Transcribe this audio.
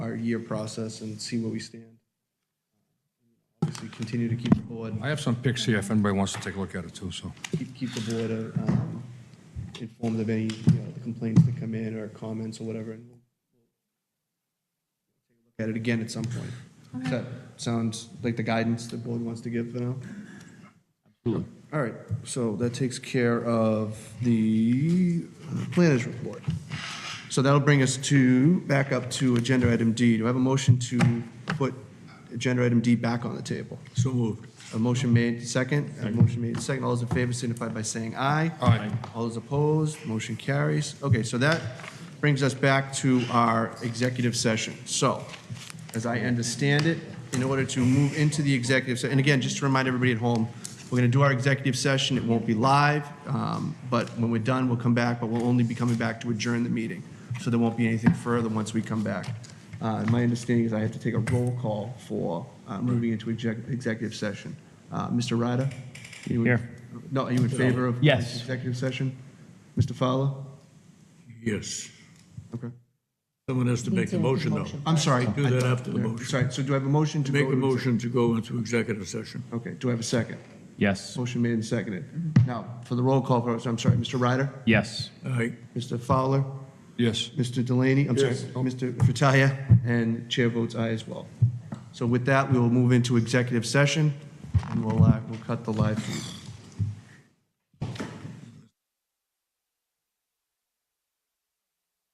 entire year process and see where we stand. Obviously, continue to keep the board, I have some pics here if anybody wants to take a look at it too, so. keep, keep the board uh, um, informed of any, you know, complaints that come in or comments or whatever. and we'll we'll Take a look At it again at some point. Does that sounds like the guidance the board wants to give for now? All right, so that takes care of the uh, planners report. So that'll bring us to, back up to agenda item D. Do I have a motion to put agenda item D back on the table? So moved. A motion made second, a motion made second. All those in favor signify by saying aye. Aye. All those opposed, motion carries. Okay, so that brings us back to our executive session. So, as I understand it, in order to move into the executive session, and again, just to remind everybody at home, we're going to do our executive session. It won't be live, um, but when we're done, we'll come back, but we'll only be coming back to adjourn the meeting. So there won't be anything further once we come back. Uh, My understanding is I have to take a roll call for uh, moving into exec- executive session. Uh, Mr. Ryder? you would- Here. No, are you in favor of? Yes. Executive session? Mr. Fowler? Yes. Okay. Someone has to make the motion, though. I'm sorry. Do that after the motion. Sorry, so do I have a motion to go? Make a to exec- motion to go into executive session. Okay, do I have a second? Yes. Motion made and seconded. Now, for the roll call, vote, I'm sorry, Mr. Ryder? Yes. Aye. Mr. Fowler? Yes. Mr. Delaney? I'm sorry, Mr. Fratalia, and chair votes aye as well. So with that, we will move into executive session, and we'll, uh, we'll cut the live feed.